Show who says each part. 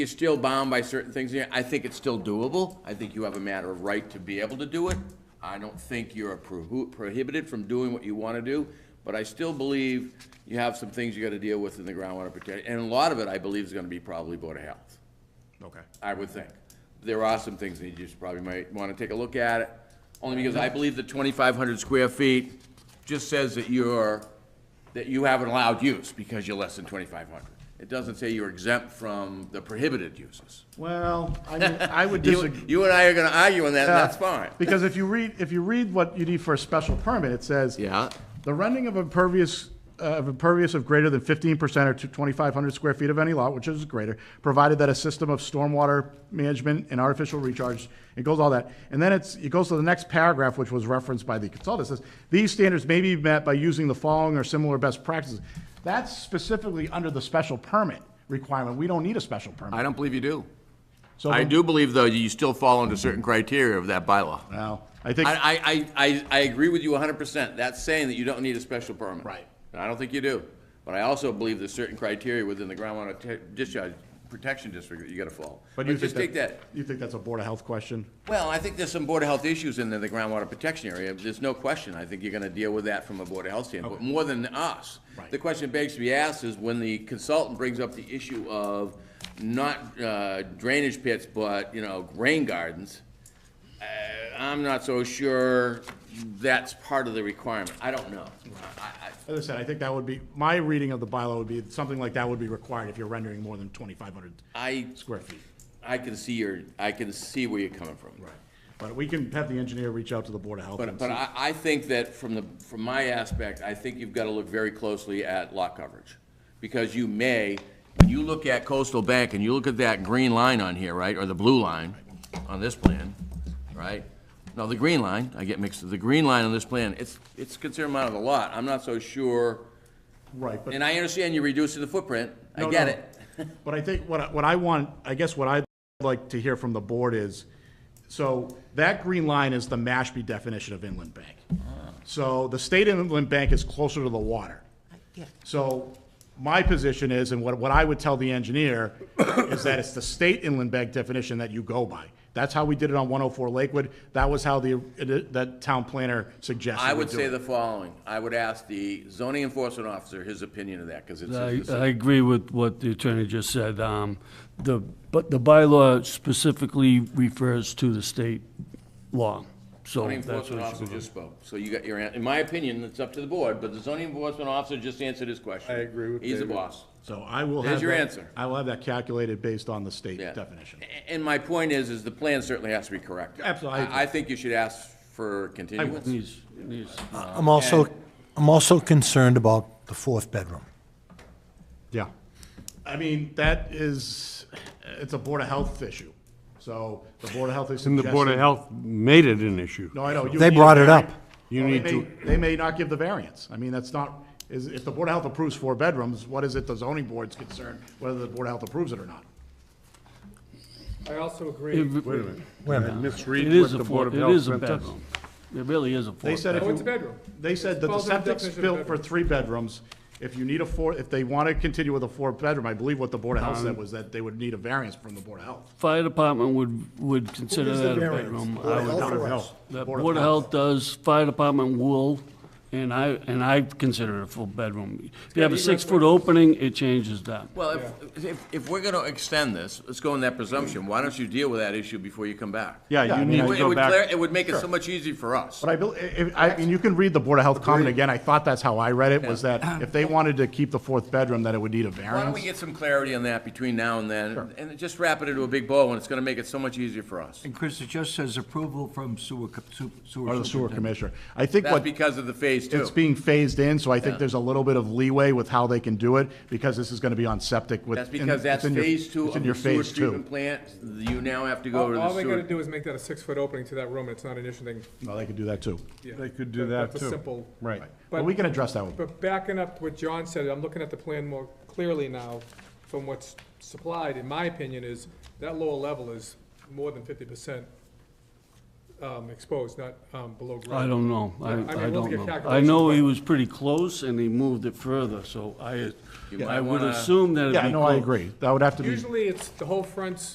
Speaker 1: you're still bound by certain things, yeah, I think it's still doable. I think you have a matter of right to be able to do it. I don't think you're prohu- prohibited from doing what you want to do, but I still believe you have some things you got to deal with in the groundwater protection. And a lot of it, I believe, is going to be probably Board of Health.
Speaker 2: Okay.
Speaker 1: I would think. There are some things that you just probably might want to take a look at, only because I believe the twenty-five hundred square feet just says that you're, that you have an allowed use because you're less than twenty-five hundred. It doesn't say you're exempt from the prohibited uses.
Speaker 3: Well, I mean, I would
Speaker 1: You,
Speaker 3: disagree.
Speaker 1: you and I are gonna argue on that, and that's fine.
Speaker 3: Because if you read, if you read what you need for a special permit, it says.
Speaker 1: Yeah.
Speaker 3: The rendering of impervious, uh, of impervious of greater than fifteen percent or twenty-five hundred square feet of any lot, which is greater, provided that a system of stormwater management and artificial recharge, it goes all that. And then it's, it goes to the next paragraph, which was referenced by the consultant, It says, these standards may be met by using the following or similar best practices. That's specifically under the special permit requirement. We don't need a special
Speaker 1: I
Speaker 3: permit.
Speaker 1: don't believe you do.
Speaker 3: So
Speaker 1: I
Speaker 3: then-
Speaker 1: do believe, though, you still fall under certain criteria of that bylaw.
Speaker 3: Well, I think.
Speaker 1: I, I, I, I agree with you hundred percent. That's saying that you don't need a special permit.
Speaker 3: Right.
Speaker 1: And I don't think you do. But I also believe there's certain criteria within the groundwater te- discharge protection district that you gotta follow. But
Speaker 3: you
Speaker 1: just take
Speaker 3: think
Speaker 1: that,
Speaker 3: You think that's a Board of Health question?
Speaker 1: well, I think there's some Board of Health issues in the the groundwater protection area. There's no question. I think you're gonna deal with that from a Board of Health standpoint, more than us.
Speaker 3: Right.
Speaker 1: The question begs to be asked is when the consultant brings up the issue of not uh, drainage pits, but, you know, rain gardens, uh, I'm not so sure that's part of the requirement. I don't know. I- I-
Speaker 3: As I said, I think that would be, my reading of the bylaw would be, something like that would be required if you're rendering more than 2,500
Speaker 1: I,
Speaker 3: square feet.
Speaker 1: I can see your, I can see where you're coming from.
Speaker 3: But we can have the engineer reach out to the Board of Health.
Speaker 1: But,
Speaker 3: and
Speaker 1: but
Speaker 3: see.
Speaker 1: I, I think that from the, from my aspect, I think you've got to look very closely at lot coverage. Because you may, when you look at coastal bank and you look at that green line on here, right, or the blue line on this plan, right? No, the green line, I get mixed, the green line on this plan, it's, it's a considerable amount of the lot. I'm not so sure,
Speaker 3: Right, but.
Speaker 1: and I understand you're reducing the footprint. I
Speaker 3: No,
Speaker 1: get
Speaker 3: no.
Speaker 1: it.
Speaker 3: But I think what, I- what I want, I guess what I'd like to hear from the board is, so that green line is the Mashpee definition of inland bank.
Speaker 1: Ah.
Speaker 3: So the state inland bank is closer to the water. So my position is, and what, what I would tell the engineer, is that it's the state inland bank definition that you go by. That's how we did it on 104 Lakewood. That was how the, that town planner suggested
Speaker 1: I
Speaker 3: we
Speaker 1: would
Speaker 3: do
Speaker 1: say
Speaker 3: it.
Speaker 1: the following. I would ask the zoning enforcement officer his opinion of that, because it's his
Speaker 4: I,
Speaker 1: decision.
Speaker 4: I agree with what the attorney just said. Um, the, but the bylaw specifically refers to the state law, so
Speaker 1: Zoning
Speaker 4: that's what it should
Speaker 1: enforcement officer
Speaker 4: be.
Speaker 1: just spoke, so you got your, an- in my opinion, it's up to the board, but the zoning enforcement officer just answered his question. I agree with He's the boss.
Speaker 3: So I will have.
Speaker 1: There's your
Speaker 3: that-
Speaker 1: answer.
Speaker 3: I will have that calculated based on the state
Speaker 1: Yeah.
Speaker 3: definition.
Speaker 1: A- And my point is, is the plan certainly has to be corrected.
Speaker 3: Absolutely, I
Speaker 1: I I think you should ask for continuance.
Speaker 4: Needs, needs.
Speaker 5: I'm also,
Speaker 1: and-
Speaker 5: I'm also concerned about the fourth bedroom.
Speaker 3: Yeah. I mean, that is, it's a Board of Health issue. So the Board of Health is
Speaker 6: And the Board of Health made it an issue.
Speaker 3: No, I know. you
Speaker 5: They
Speaker 3: need a
Speaker 5: brought it
Speaker 3: vari-
Speaker 5: up.
Speaker 6: You
Speaker 3: Well, they
Speaker 6: need
Speaker 3: may-
Speaker 6: to-
Speaker 3: They may not give the variance. I mean, that's not, is, if the Board of Health approves four bedrooms, what is it the zoning board's concerned, whether the Board of Health approves it or not?
Speaker 7: I also
Speaker 6: Wait
Speaker 7: agree.
Speaker 6: a minute.
Speaker 5: Wait a minute.
Speaker 4: It
Speaker 6: Misread
Speaker 4: is
Speaker 6: what
Speaker 4: a
Speaker 6: the
Speaker 4: four,
Speaker 6: Board of
Speaker 4: it
Speaker 6: Health
Speaker 4: is a
Speaker 6: sent us.
Speaker 4: bedroom. It really is a four.
Speaker 3: They said if
Speaker 7: Oh,
Speaker 3: you.
Speaker 7: it's a bedroom.
Speaker 3: They said that the
Speaker 7: falls under the
Speaker 3: septic's
Speaker 7: definition of
Speaker 3: built for three bedrooms. If you need a four, if they want to continue with a four-bedroom, I believe what the Board of Health said was that they would need a variance from the Board of Health.
Speaker 4: Fire department would, would consider
Speaker 5: gives the
Speaker 4: that a
Speaker 5: variance?
Speaker 4: bedroom.
Speaker 5: Board of
Speaker 4: I would-
Speaker 5: Health
Speaker 3: Board of
Speaker 5: or
Speaker 3: Health.
Speaker 4: The
Speaker 3: Board of
Speaker 4: Board of
Speaker 3: Health.
Speaker 4: Health does, fire department will, and I, and I consider it a full bedroom. If you have a six-foot opening, it changes that.
Speaker 1: Well, if, if, if we're gonna extend this, let's go on that presumption, why don't you deal with that issue before you come back?
Speaker 3: Yeah,
Speaker 6: Yeah,
Speaker 3: I
Speaker 6: you
Speaker 3: mean,
Speaker 6: need
Speaker 1: It
Speaker 6: to
Speaker 1: would- it
Speaker 6: go
Speaker 1: would clear-
Speaker 6: back.
Speaker 1: It would make it so much easier for us.
Speaker 3: But I bel if, I mean, you can read the Board of Health comment again. I thought that's how I read it, was that if they wanted to keep the fourth bedroom, that it would need a
Speaker 1: Why don't we
Speaker 3: variance.
Speaker 1: get some clarity on that between now and then, and just wrap it into a big bow, and it's gonna make it so much easier for us.
Speaker 8: And Chris, it just says approval from sewer, co- su- sewer.
Speaker 3: Or the sewer
Speaker 8: superintendent.
Speaker 3: commissioner. I think
Speaker 1: That's
Speaker 3: what,
Speaker 1: because of the phase two.
Speaker 3: it's being phased in, so I think there's a little bit of leeway with how they can do it, because this is gonna be on septic with.
Speaker 1: That's
Speaker 3: and
Speaker 1: because
Speaker 3: it's
Speaker 1: that's
Speaker 3: in your-
Speaker 1: phase two
Speaker 3: it's in
Speaker 1: of
Speaker 3: your
Speaker 1: the sewer
Speaker 3: phase two.
Speaker 1: treatment plant, you now have to go to
Speaker 7: All all
Speaker 1: the
Speaker 7: they gotta
Speaker 1: sewer.
Speaker 7: do is make that a six-foot opening to that room, and it's not an issue thing.
Speaker 3: No, they could do that too.
Speaker 7: yeah.
Speaker 6: They could do that,
Speaker 7: That's
Speaker 6: too.
Speaker 7: a simple.
Speaker 6: Right.
Speaker 3: But we can address that one.
Speaker 7: But backing up what John said, I'm looking at the plan more clearly now from what's supplied, in my opinion, is that lower level is more than fifty percent um, exposed, not um, below grade.
Speaker 4: I don't know. I,
Speaker 7: Yeah, I mean,
Speaker 4: I
Speaker 7: we'll
Speaker 4: don't
Speaker 7: get
Speaker 4: know. I
Speaker 7: calculations,
Speaker 4: know he
Speaker 7: but-
Speaker 4: was pretty close and he moved it further, so I,
Speaker 1: You
Speaker 4: I
Speaker 1: might
Speaker 4: would
Speaker 1: wanna-
Speaker 4: assume that it'd be.
Speaker 3: Yeah, no, I
Speaker 4: clo-
Speaker 3: agree. That would have to be.
Speaker 7: Usually it's, the whole front's